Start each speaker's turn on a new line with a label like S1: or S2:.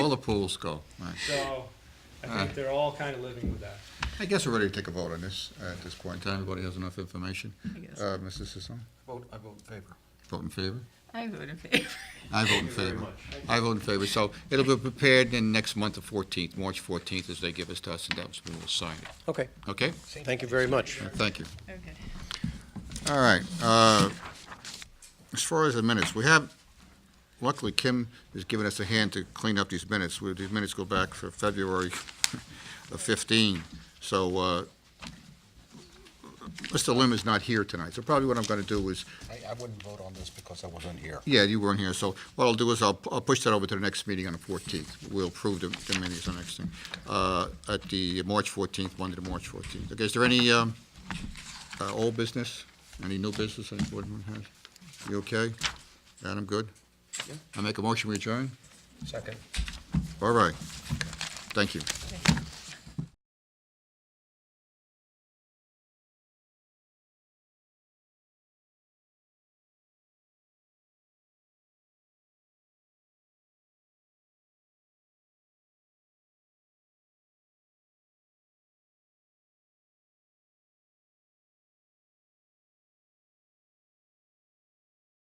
S1: All the pools go. Right.
S2: So I think they're all kind of living with that.
S1: I guess we're ready to take a vote on this uh, at this point in time. Everybody has enough information.
S3: I guess.
S1: Uh, Mrs. Sisson,
S4: Vote, I vote in favor.
S1: vote in favor?
S3: I vote in favor.
S1: I vote in favor. I vote in favor. So it'll be prepared in next month, the 14th, March 14th, as they give us to us, and that's when we'll sign it.
S5: Okay,
S1: Okay?
S5: thank you very much.
S1: Thank you.
S3: Okay.
S1: All right. uh, As far as the minutes, we have, luckily Kim has given us a hand to clean up these minutes. We- These minutes go back for February of 15, so uh, Mr. Lim is not here tonight, so probably what I'm going to do is,
S4: I, I wouldn't vote on this because I wasn't here.
S1: yeah, you weren't here, so what I'll do is I'll I'll push that over to the next meeting on the 14th. We'll approve the the minutes on the next thing, uh, at the March 14th, Monday to March 14th. Okay, is there any um, uh, old business? Any new business any board member has? You okay? Adam, good? I make a motion, we adjourn?
S4: Second.
S1: All right. Thank you.
S3: Thank you.